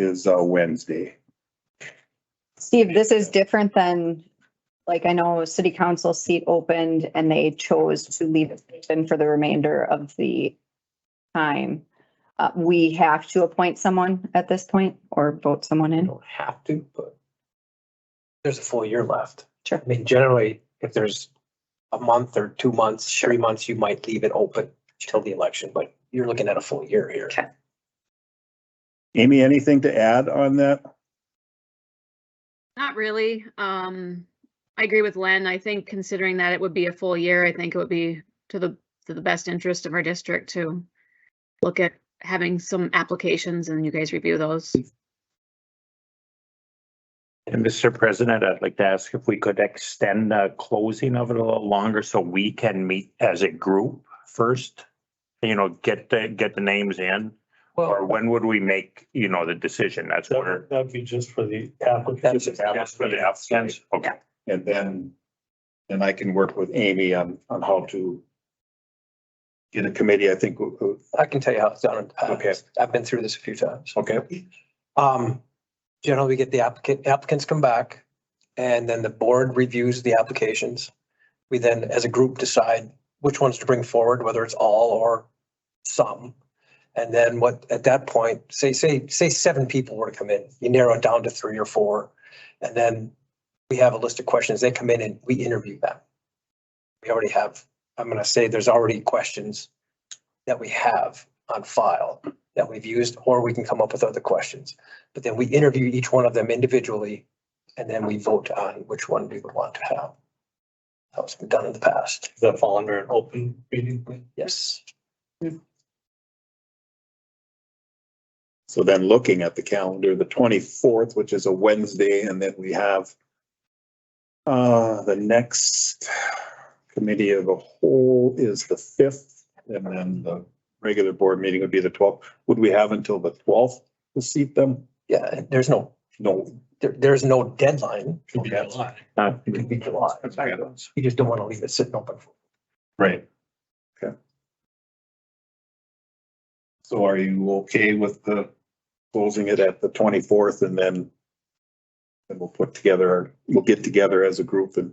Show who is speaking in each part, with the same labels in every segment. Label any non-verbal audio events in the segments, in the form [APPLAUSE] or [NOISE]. Speaker 1: is uh, Wednesday.
Speaker 2: Steve, this is different than, like, I know city council seat opened and they chose to leave it open for the remainder of the time. Uh, we have to appoint someone at this point or vote someone
Speaker 3: You
Speaker 2: in.
Speaker 3: don't have to, but there's a full year left.
Speaker 2: Sure.
Speaker 3: I mean, generally, if there's a month or two months, three months, you might leave it open till the election, but you're looking at a full year here.
Speaker 2: Okay.
Speaker 1: Amy, anything to add on that?
Speaker 4: Not really. Um, I agree with Len. I think considering that it would be a full year, I think it would be to the, to the best interest of our district to look at having some applications and you guys review those.
Speaker 5: And Mr. President, I'd like to ask if we could extend the closing of it a little longer so we can meet as a group first? You know, get the, get the names in, or
Speaker 3: Well,
Speaker 5: when would we make, you know, the decision? That's
Speaker 6: That
Speaker 5: where.
Speaker 6: would that'd be just for the
Speaker 3: That's
Speaker 6: applicants.
Speaker 3: just
Speaker 5: That's for the applicants. Okay,
Speaker 1: And then, then I can work with Amy on, on how to get a committee, I think. uh, uh,
Speaker 3: I can tell you how it's done. Uh,
Speaker 1: Okay.
Speaker 3: I've been through this a few times.
Speaker 1: Okay,
Speaker 3: Um, generally, we get the applicant, applicants come back and then the board reviews the applications. We then, as a group, decide which ones to bring forward, whether it's all or some. And then what, at that point, say, say, say seven people were to come in, you narrow it down to three or four. And then we have a list of questions. They come in and we interview them. We already have, I'm going to say there's already questions that we have on file that we've used, or we can come up with other questions. But then we interview each one of them individually, and then we vote on which one we would want to have. That's been done in the past.
Speaker 6: Does that fall under an open meeting?
Speaker 3: Yes.
Speaker 1: so then looking at the calendar, the twenty-fourth, which is a Wednesday, and then we have uh, the next committee of the whole is the fifth, and then the regular board meeting would be the twelfth. Would we have until the twelfth to seat them?
Speaker 3: Yeah, and there's no,
Speaker 1: No,
Speaker 3: there, there's no deadline.
Speaker 6: Could be a lot.
Speaker 5: Uh,
Speaker 3: It could be July. You just don't want to leave it sitting open. for
Speaker 1: Right. Okay. So are you okay with the closing it at the twenty-fourth and then then we'll put together, we'll get together as a group and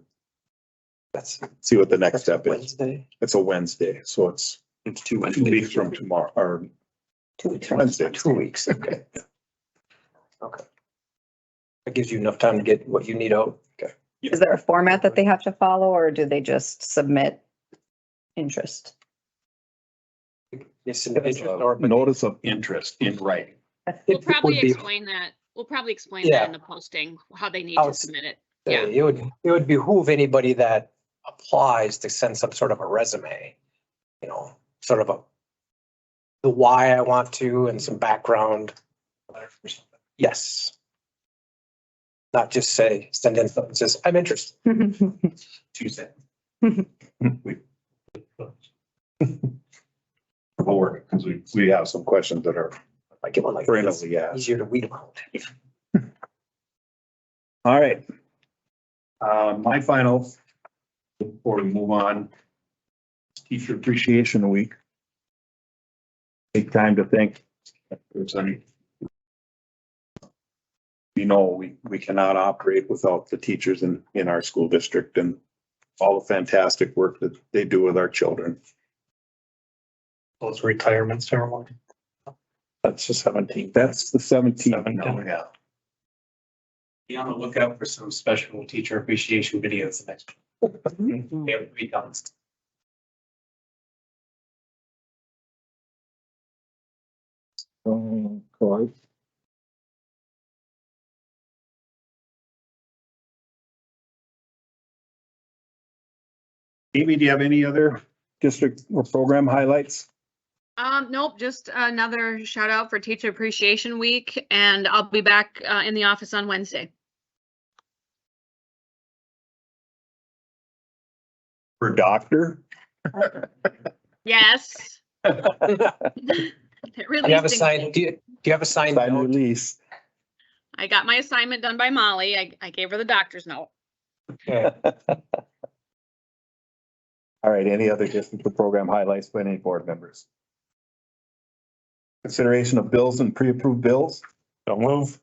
Speaker 3: That's.
Speaker 1: see what the next step is.
Speaker 3: Wednesday.
Speaker 1: It's a Wednesday, so it's
Speaker 5: It's two
Speaker 1: two weeks from tomorrow, or
Speaker 2: Two weeks.
Speaker 1: Wednesday.
Speaker 3: Two weeks. Okay. [LAUGHS] Okay. That gives you enough time to get what you need out. Okay.
Speaker 2: Is there a format that they have to follow or do they just submit interest?
Speaker 3: Yes.
Speaker 1: uh, Notice of interest in writing.
Speaker 4: We'll probably explain that. We'll probably explain
Speaker 3: Yeah.
Speaker 4: that in the posting, how they need
Speaker 3: I
Speaker 4: to
Speaker 3: was-
Speaker 4: submit it.
Speaker 3: Yeah,
Speaker 4: Yeah.
Speaker 3: it would, it would behoove anybody that applies to send some sort of a resume, you know, sort of a the why I want to and some background. Yes. Not just say, send in, something that says, I'm interested. [LAUGHS] Tuesday.
Speaker 1: [LAUGHS] Or, because we, we have some questions that are
Speaker 3: I get one like this,
Speaker 1: perennially asked.
Speaker 3: easier to weed out.
Speaker 1: All right. Uh, my final, before we move on, is Teacher Appreciation Week. Take time to thank. if there's any- You know, we, we cannot operate without the teachers in, in our school district and all the fantastic work that they do with our children.
Speaker 6: Those retirement ceremony. That's the seventeenth.
Speaker 1: That's the seventeenth.
Speaker 6: Seventeenth.
Speaker 1: Yeah.
Speaker 7: be on the lookout for some special teacher appreciation videos next. They have three times.
Speaker 1: Amy, do you have any other district or program highlights?
Speaker 4: Um, nope, just another shout out for Teacher Appreciation Week and I'll be back, uh, in the office on Wednesday.
Speaker 1: For doctor?
Speaker 3: [LAUGHS]
Speaker 4: [LAUGHS] Yes.
Speaker 3: Do you have a sign, do you, do you have a sign?
Speaker 1: Sign [LAUGHS] release.
Speaker 4: I got my assignment done by Molly. I, I gave her the doctor's note.
Speaker 1: All right, any other district or program highlights by any board members? Consideration of bills and pre-approved bills?
Speaker 5: Don't move.